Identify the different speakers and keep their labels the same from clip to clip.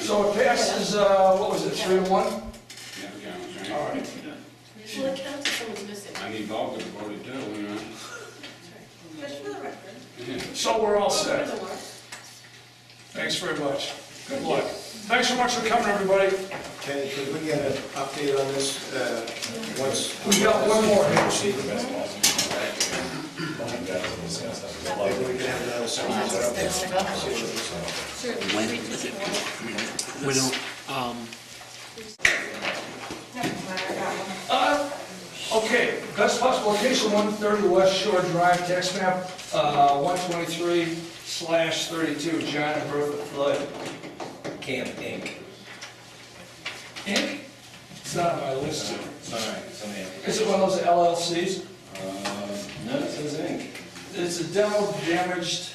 Speaker 1: So it passes, uh, what was it, three to one?
Speaker 2: Yeah, counts,
Speaker 1: All
Speaker 2: right?
Speaker 1: right.
Speaker 3: Well, it counts if someone's missing.
Speaker 2: I'm involved in the voting too, you know?
Speaker 3: Just for the record.
Speaker 2: Yeah.
Speaker 1: So we're all set.
Speaker 3: For the work.
Speaker 1: Thanks very much. Good luck. Thanks so much for coming, everybody.
Speaker 4: Kenny, could we get an update on this, uh, once?
Speaker 1: We got one more.
Speaker 4: Maybe we can have another seminar. See what it's like.
Speaker 5: We don't, um,
Speaker 1: Uh, Okay, best possible location, 130 West Shore Drive, tax map uh, 123 slash 32, John and Bertha Flood.
Speaker 6: Camp Inc.
Speaker 1: Inc.? It's not on my list.
Speaker 6: Sorry, something else.
Speaker 1: Is it one of those LLCs?
Speaker 6: Uh, No, it says Inc.
Speaker 1: It's a demo damaged,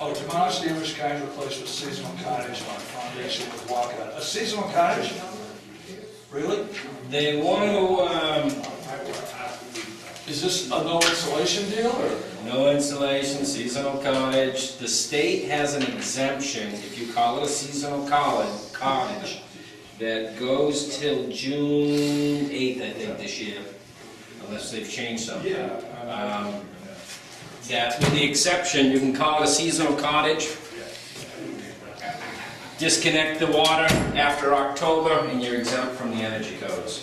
Speaker 1: oh, demolished damaged cottage replaced with seasonal cottage on foundation with walkout. A seasonal cottage? Really?
Speaker 6: They want to,
Speaker 1: Is this a no insulation deal or?
Speaker 6: um, no insulation, seasonal cottage. The state has an exemption, if you call it a seasonal cottage, cottage, that goes till June eighth, I think, this year, unless they've changed something. Um, That, with the exception, you can call it a seasonal cottage. Disconnect the water after October, and you're exempt from the energy codes.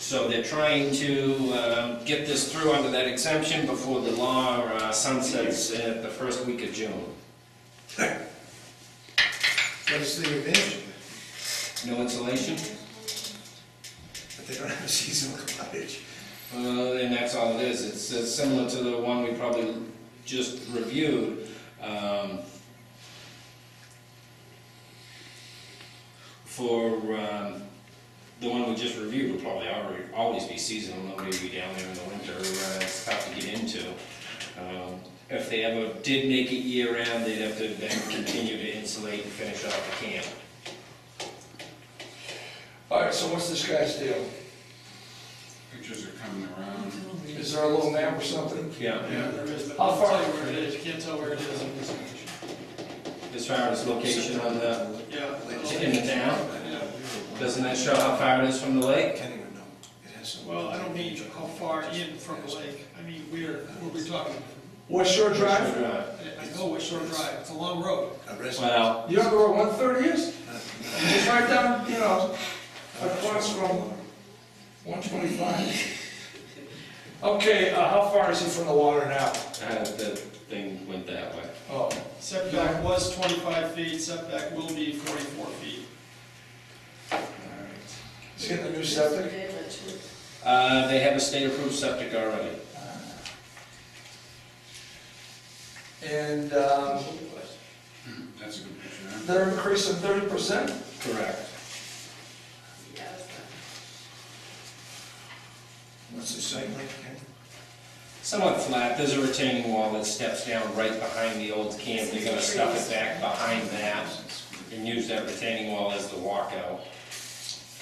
Speaker 6: So they're trying to um, get this through under that exemption before the law uh, sunsets at the first week of June.
Speaker 4: What is the advantage?
Speaker 6: No insulation,
Speaker 4: But they don't have a seasonal cottage.
Speaker 6: Uh, and that's all it is. It's uh, similar to the one we probably just reviewed. um, For um, the one we just reviewed will probably alre- always be seasonal, nobody will be down there in the winter, uh, it's tough to get into. Um, If they ever did make it year-round, they'd have to then continue to insulate and finish off the camp.
Speaker 1: All right, so what's this guy's deal?
Speaker 2: Pictures are coming around.
Speaker 1: Is there a little map or something?
Speaker 6: Yeah,
Speaker 7: Yeah, there is, but
Speaker 1: How
Speaker 7: I'll
Speaker 1: far-
Speaker 7: tell you where it is, you can't tell where it is in this condition.
Speaker 6: as far as location on the,
Speaker 7: Yeah.
Speaker 6: in the town,
Speaker 7: Yeah.
Speaker 6: doesn't that show how far it is from the lake?
Speaker 4: Kenny would know. It has some.
Speaker 7: Well, I don't mean how far in from the lake, I mean, where, where we talking?
Speaker 1: West Shore Drive?
Speaker 6: Well,
Speaker 7: I I know what Shore Drive, it's a long road.
Speaker 4: A resident.
Speaker 6: well,
Speaker 1: You don't know where 130 is? It's right down, you know, across from 125. Okay, uh, how far is he from the water now?
Speaker 6: uh, the thing went that way.
Speaker 1: Oh,
Speaker 7: Setback was twenty-five feet, setback will be forty-four feet.
Speaker 1: is he in the new septic?
Speaker 3: Very much.
Speaker 6: Uh, they have a state-approved septic already.
Speaker 1: And um,
Speaker 2: That's a good picture, huh?
Speaker 1: they're increasing 30%?
Speaker 6: Correct.
Speaker 3: Yeah, that's not-
Speaker 4: What's the site like, Kenny?
Speaker 6: Somewhat flat, there's a retaining wall that steps down right behind the old camp. They're gonna stuff it back behind that and use that retaining wall as the walkout,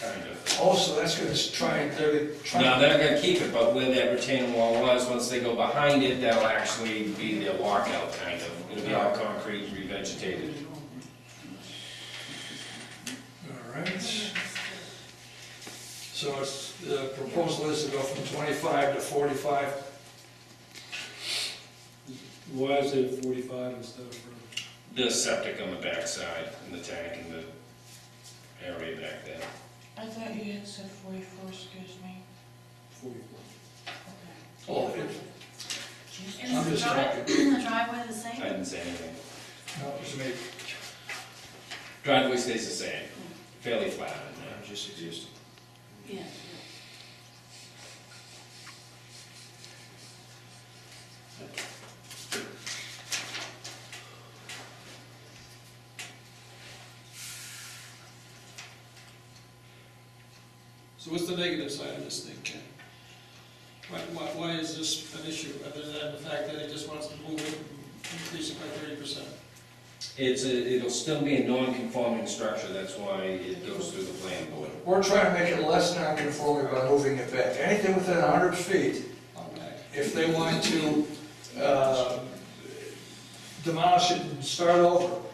Speaker 6: kind of.
Speaker 1: Oh, so that's gonna try and, they're trying.
Speaker 6: No, they're gonna keep it, but where that retaining wall was, once they go behind it, that'll actually be the walkout, kind of. It'll be all concrete, revegetated.
Speaker 1: All right. So it's, the proposal is to go from 25 to 45.
Speaker 8: Why is it forty-five instead of uh,
Speaker 6: The septic on the backside, and the tank and the area back there.
Speaker 9: I thought you had said forty-four, excuse me.
Speaker 8: forty-four?
Speaker 1: Oh, it- I'm
Speaker 9: Is
Speaker 1: just
Speaker 9: the dri- the driveway the
Speaker 6: I
Speaker 9: same?
Speaker 6: didn't say anything.
Speaker 1: no, it's me.
Speaker 6: Driveway stays the same, fairly flat in there.
Speaker 4: Just existing.
Speaker 9: Yeah.
Speaker 7: So what's the negative side of this thing, Ken? Why, why, why is this an issue, other than the fact that it just wants to move it, increase it by thirty percent?
Speaker 6: It's, a- it'll still be a non-conforming structure, that's why it goes through the planning board.
Speaker 1: We're trying to make it less non-conforming by moving it back. Anything within 100 feet, if they want to uh, demolish it and start over,